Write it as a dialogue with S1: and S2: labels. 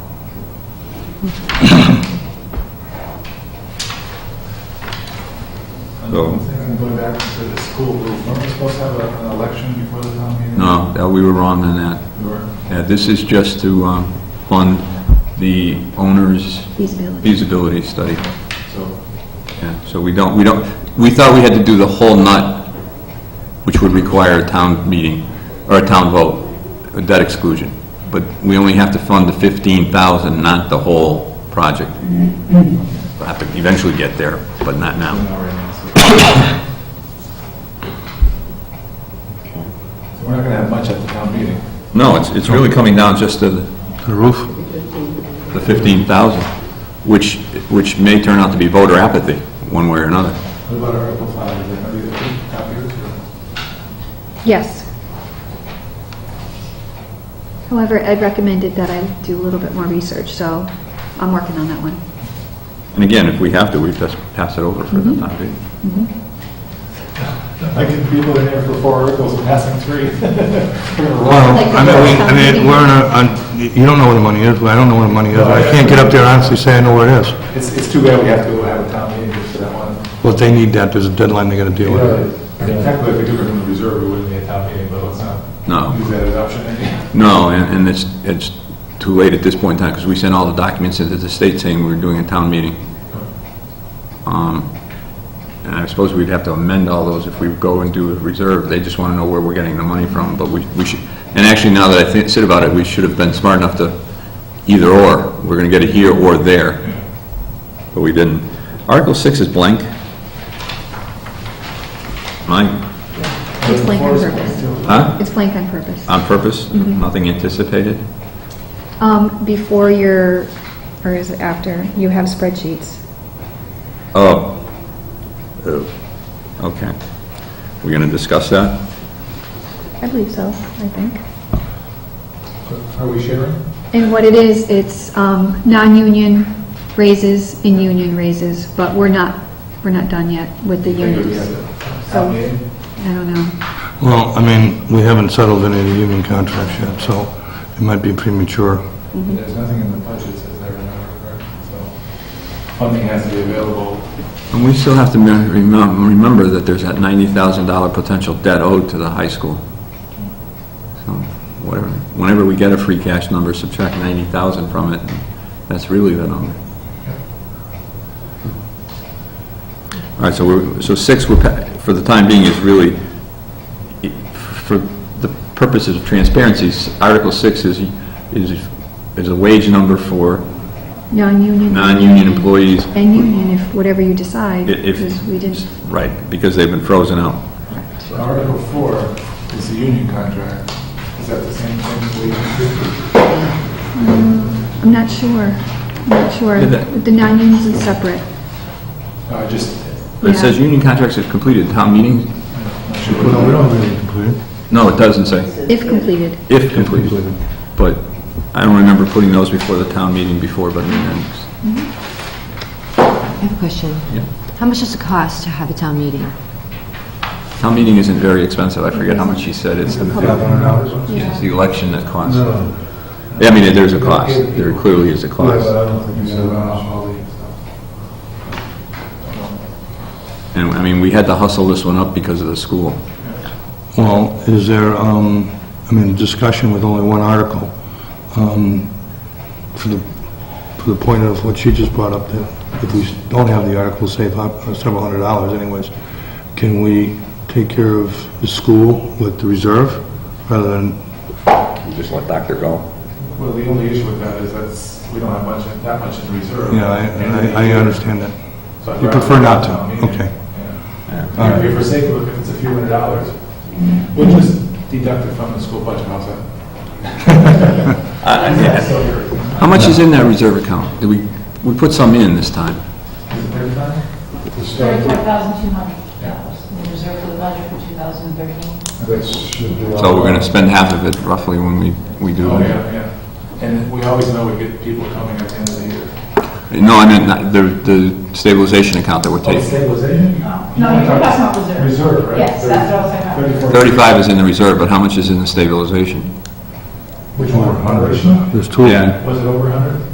S1: So-
S2: I'm thinking going back to the school roof, weren't we supposed to have a- an election before the town meeting?
S1: No, that- we were wrong on that.
S2: We were.
S1: Yeah, this is just to um, fund the owner's
S3: feasibility.
S1: feasibility study.
S2: So,
S1: Yeah, so we don't, we don't, we thought we had to do the whole nut, which would require a town meeting, or a town vote, a debt exclusion. But we only have to fund the 15,000, not the whole project. We'll have to eventually get there, but not now.
S2: not right now, so. So we're not gonna have much at the town meeting.
S1: No, it's, it's really coming down just to the... roof? The 15,000, which, which may turn out to be voter apathy, one way or another.
S2: What about Article Five, is that gonna be the two copiers or?
S3: Yes. However, Ed recommended that I do a little bit more research, so I'm working on that one.
S1: And again, if we have to, we just pass it over for the time being.
S2: I can people in here for four articles and passing three. We're gonna
S4: Well,
S2: run.
S3: Like
S4: I mean, we, I
S3: the-
S4: mean, we're in a, on- you don't know where the money is, I don't know where the money is, I can't get up there and honestly say I know where it is.
S2: It's, it's too bad we have to have a town meeting just for that one.
S4: Well, if they need that, there's a deadline they gotta deal with.
S2: Technically, if we took it from the reserve, we wouldn't need a town meeting, but let's not
S1: No.
S2: use that as option anymore.
S1: No, and, and it's, it's too late at this point in time, because we sent all the documents into the state saying we were doing a town meeting. Um, And I suppose we'd have to amend all those if we go and do a reserve, they just want to know where we're getting the money from, but we, we should, and actually, now that I think, sit about it, we should have been smart enough to either or, we're gonna get it here or there, but we didn't. Article six is blank. Mine,
S3: It's blank on purpose.
S1: huh?
S3: It's blank on purpose.
S1: On purpose, nothing anticipated?
S3: Um, before your, or is it after, you have spreadsheets.
S1: Oh. Oh. Okay. We're going to discuss that?
S3: I believe so, I think.
S2: Are we sharing?
S3: And what it is, it's, um, non-union raises and union raises, but we're not, we're not done yet with the unions. So,
S2: Town meeting?
S3: I don't know.
S4: Well, I mean, we haven't settled any of the union contracts yet, so it might be premature.
S3: mm-hmm.
S2: There's nothing in the budget says I remember correct, so funding has to be available.
S1: And we still have to me- remem- remember that there's that $90,000 potential debt owed to the high school. So whatever, whenever we get a free cash number, subtract 90,000 from it, and that's really the number. All right, so we're, so six, we're, pa- for the time being, is really, i- for the purposes of transparency, s- Article six is, is, is a wage number for
S3: Non-union.
S1: non-union employees.
S3: And union, if, whatever you decide,
S1: I- If,
S3: because we didn't.
S1: right, because they've been frozen out.
S2: So Article four is the union contract. Is that the same thing as we,
S3: I'm not sure, I'm not sure.
S1: Yeah, that-
S3: The non-unions is separate.
S2: uh, just,
S1: It says union contracts are completed, town meeting?
S2: I'm not sure. what-
S4: really completed.
S1: No, it doesn't say,
S3: If completed.
S1: if completed. But I don't remember putting those before the town meeting before, but then,
S5: I have a question.
S1: Yeah.
S5: How much does it cost to have a town meeting?
S1: town meeting isn't very expensive, I forget how much he said, it's the,
S2: $500?
S1: it's the election that costs. Yeah, I mean, there's a cost, there clearly is a cost.
S2: don't think so. All the stuff.
S1: And, I mean, we had to hustle this one up because of the school.
S4: Well, is there, um, I mean, discussion with only one article, um, for the, for the point of what she just brought up, that if we don't have the article, save up uh, several hundred dollars anyways, can we take care of the school with the reserve rather than,
S1: You just let Doctor go.
S2: Well, the only issue with that is that's, we don't have much, that much in reserve.
S4: you know, I, I I understand that.
S2: So I'd
S4: You
S2: rather
S4: prefer not
S2: have a
S4: to,
S2: town meeting.
S4: okay.
S2: Yeah.
S4: All
S2: If
S4: right.
S2: you're forsaken, if it's a few hundred dollars, we'll just deduct it from the school budget also.
S1: Uh,
S2: So you're-
S1: How much is in that reserve account? Did we, we put some in this time?
S2: is it thirty-five?
S6: Thirty-four thousand two hundred dollars, we reserve for the budget for two thousand thirteen.
S1: So we're gonna spend half of it roughly when we, we do
S2: Oh,
S1: it.
S2: yeah, yeah. And we always know we get people coming at the end of the year.
S1: No, I meant not- the, the stabilization account that we're
S2: Oh,
S1: taking.
S2: stabilization?
S6: No, you're talking about reserve.
S2: Reserve, right?
S6: Yes, that's what I was talking about.
S2: Thirty-four.
S1: Thirty-five is in the reserve, but how much is in the stabilization?
S2: Which one, 100?
S4: There's two of them.
S2: Was it over 100?